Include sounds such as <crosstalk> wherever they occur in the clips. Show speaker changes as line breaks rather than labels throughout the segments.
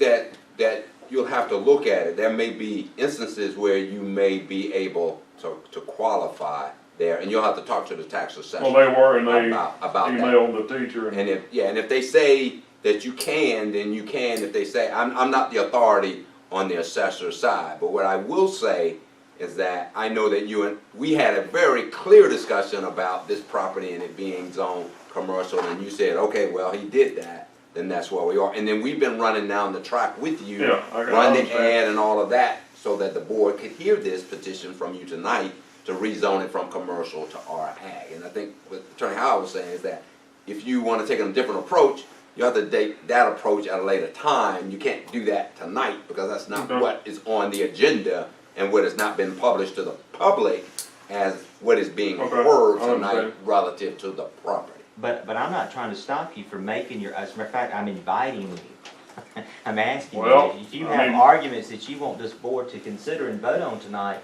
that that you'll have to look at it. There may be instances where you may be able to, to qualify there, and you'll have to talk to the tax
Well,
assessor
they were, and they
about about that.
emailed the teacher, and
And if yeah, and if they say that you can, then you can. If they say I'm I'm not the authority on the assessor side, but what I will say is that I know that you and we had a very clear discussion about this property and it being zoned commercial, and you said, okay, well he did that, then that's where we are. And then we've been running down the track with you,
Yeah, I- I
run the
understand.
ad and all of that, so that the board could hear this petition from you tonight to rezone it from commercial to R ag. And I think what Attorney Howard was saying is that if you want to take a different approach, you have to take that approach at a later time. You can't do that tonight because that's not
Mhm.
what is on the agenda and what has not been published to the public as what is being
Okay,
heard
I understand.
tonight relative to the property.
But, but I'm not trying to stop you from making your, as a matter of fact, I'm inviting you. <laughs> I'm asking you,
Well,
if you
I
have
mean-
arguments that you want this board to consider and vote on tonight,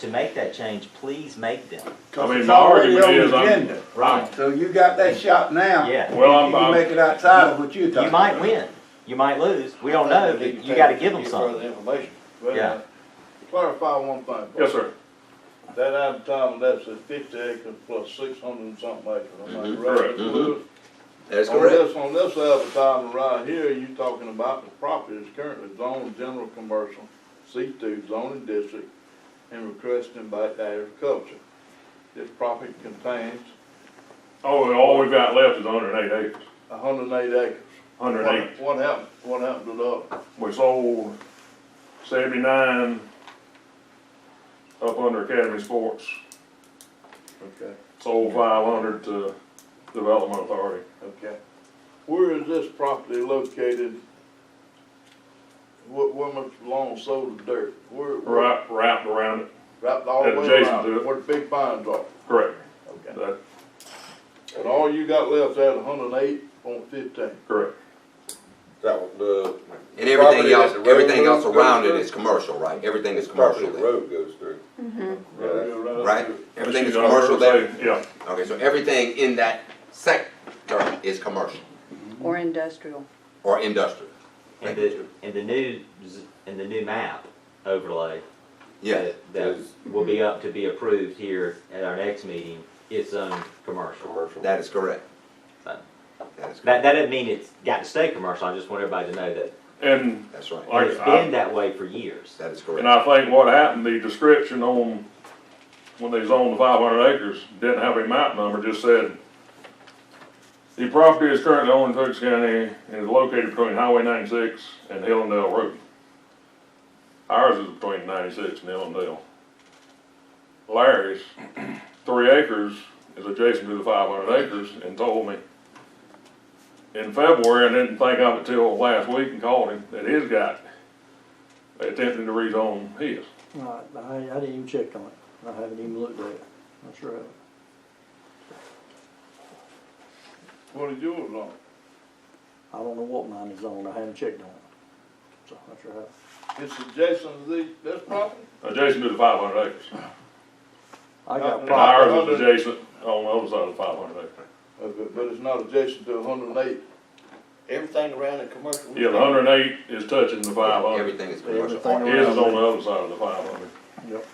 to make that change, please make them.
I
Because
mean,
it's
my
already on
argument is
the
I'm-
agenda.
Right.
So you got that shot now.
Yeah.
Well, I'm-
You can
I'm-
make it outside of what you're talking
You might
about.
win, you might lose, we don't know, but you gotta give them
Further
something.
information.
Yeah.
Well, Clarify one thing.
yes, sir.
That item title, that's a fifty acres plus six hundred and something acres, am I
Mm-hmm.
Mhm.
Correct. Mm-hmm.
correct?
Mhm. That's
On
correct.
this, on this advertisement right here, you talking about the property is currently zoned general commercial, C two zoning district, and requested by agriculture. This property contains
Oh, and all we've got left is hundred and eight acres,
hundred and eight acres.
hundred and eight.
What what happened, what happened to the other?
We sold seventy-nine up under Academy Sports,
Okay.
sold five hundred to Development Authority.
Okay. Where is this property located? Where, where Mr. Long sold the dirt? Where? where-
Right, wrapped around it,
Right all the way
Adjacent to
around,
it.
where the big pines are.
correct.
Okay.
That,
And all you got left there is hundred and eight point fifteen.
correct.
That, the.
And everything
property that
else,
the road
everything else
goes- goes
around it
through?
is commercial, right? Everything is
This property
commercial
the
there,
road goes through.
Mm-hmm.
Yeah,
right? Everything is
She's on
commercial there?
Riverside, Yeah,
Okay, so everything in that sector is commercial
Or industrial.
or industrial.
And
Thank
the,
you.
and the new, z- and the new map overlay.
Yeah,
that- That
Is-
will be up to be approved here at our next meeting, it's, um, commercial.
Commercial.
that is correct.
Fine.
That is
That,
correct.
that doesn't mean it's got to stay commercial, I just want everybody to know that
and,
That's right.
Like,
And it's
I-
been that way for years.
That is
and
correct.
I think what happened, the description on, when they zoned the five hundred acres, didn't have a map number, just said The property is currently owned in Cook County and is located between Highway ninety-six and Hillendale Road. Ours is between ninety-six and Hillendale. Larry's, three acres, is adjacent to the five hundred acres and told me in February, I didn't think of it till last week and called him, that his got, they attempted to rezone his.
All right, I, I didn't even check on it. I haven't even looked at it. That's right.
What is yours on?
I don't know what mine is on. I haven't checked on it. So that's right.
It's adjacent to the, this property?
Adjacent to the five hundred acres.
I
Uh,
got
And
property.
ours is adjacent on the other side of the five hundred acres.
Uh, But, but it's not adjacent to hundred and eight.
Everything around the commercial.
Yeah, the hundred and eight is touching the five hundred.
Everything is commercial.
Everything
His is on the other side of the five hundred.
Yep.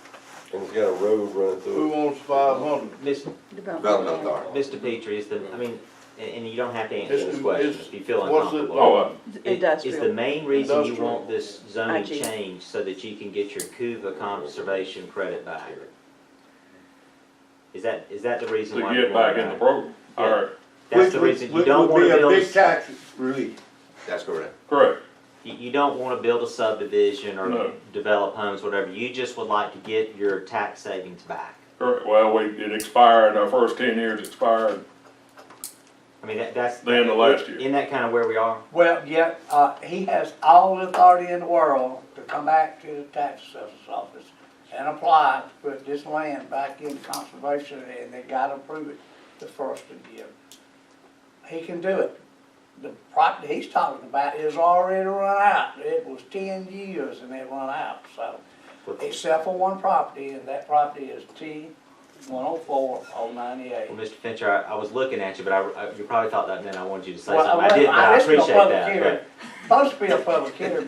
And it's got a road
Who
running through it.
owns five hundred?
Miss-
Development authority.
Mr. Petrie, is the, I mean, and, and you don't have to answer
It's-
this question
it's-
if you feel
what's it-
uncomfortable.
Oh, uh,
It- Is the
Industrial.
main reason you
Industrial.
want this zoning
IG.
changed so that you can get your CUVA conservation credit back? Is that, is that the reason
to
why? you
get
want
back in the
that?
program. All right,
That's the reason, you don't wanna
Which would
build,
be
a
a big
s-
tax relief.
That's correct.
correct.
you, you don't wanna build a subdivision
No.
or develop homes, whatever, you just would like to get your tax savings back.
Correct. Well, we, it expired, our first ten years expired
I mean, that, that's.
the end of last year.
Isn't that kind of where we are?
Well, yeah, uh, he has all the authority in the world to come back to the tax assessor's office and apply to put this land back in conservation, and they gotta approve it the first of the year. He can do it. The property he's talking about is already run out. It was ten years and it run out, so. Except for one property, and that property is T one oh four oh ninety-eight.
Well, Mr. Fincher, I, I was looking at you, but I, I- you probably thought that meant I wanted you to say
Well,
something. I did,
wasn't-
but I
listened to
appreciate
public
that.
hearing.
but-
Supposed to be a public hearing,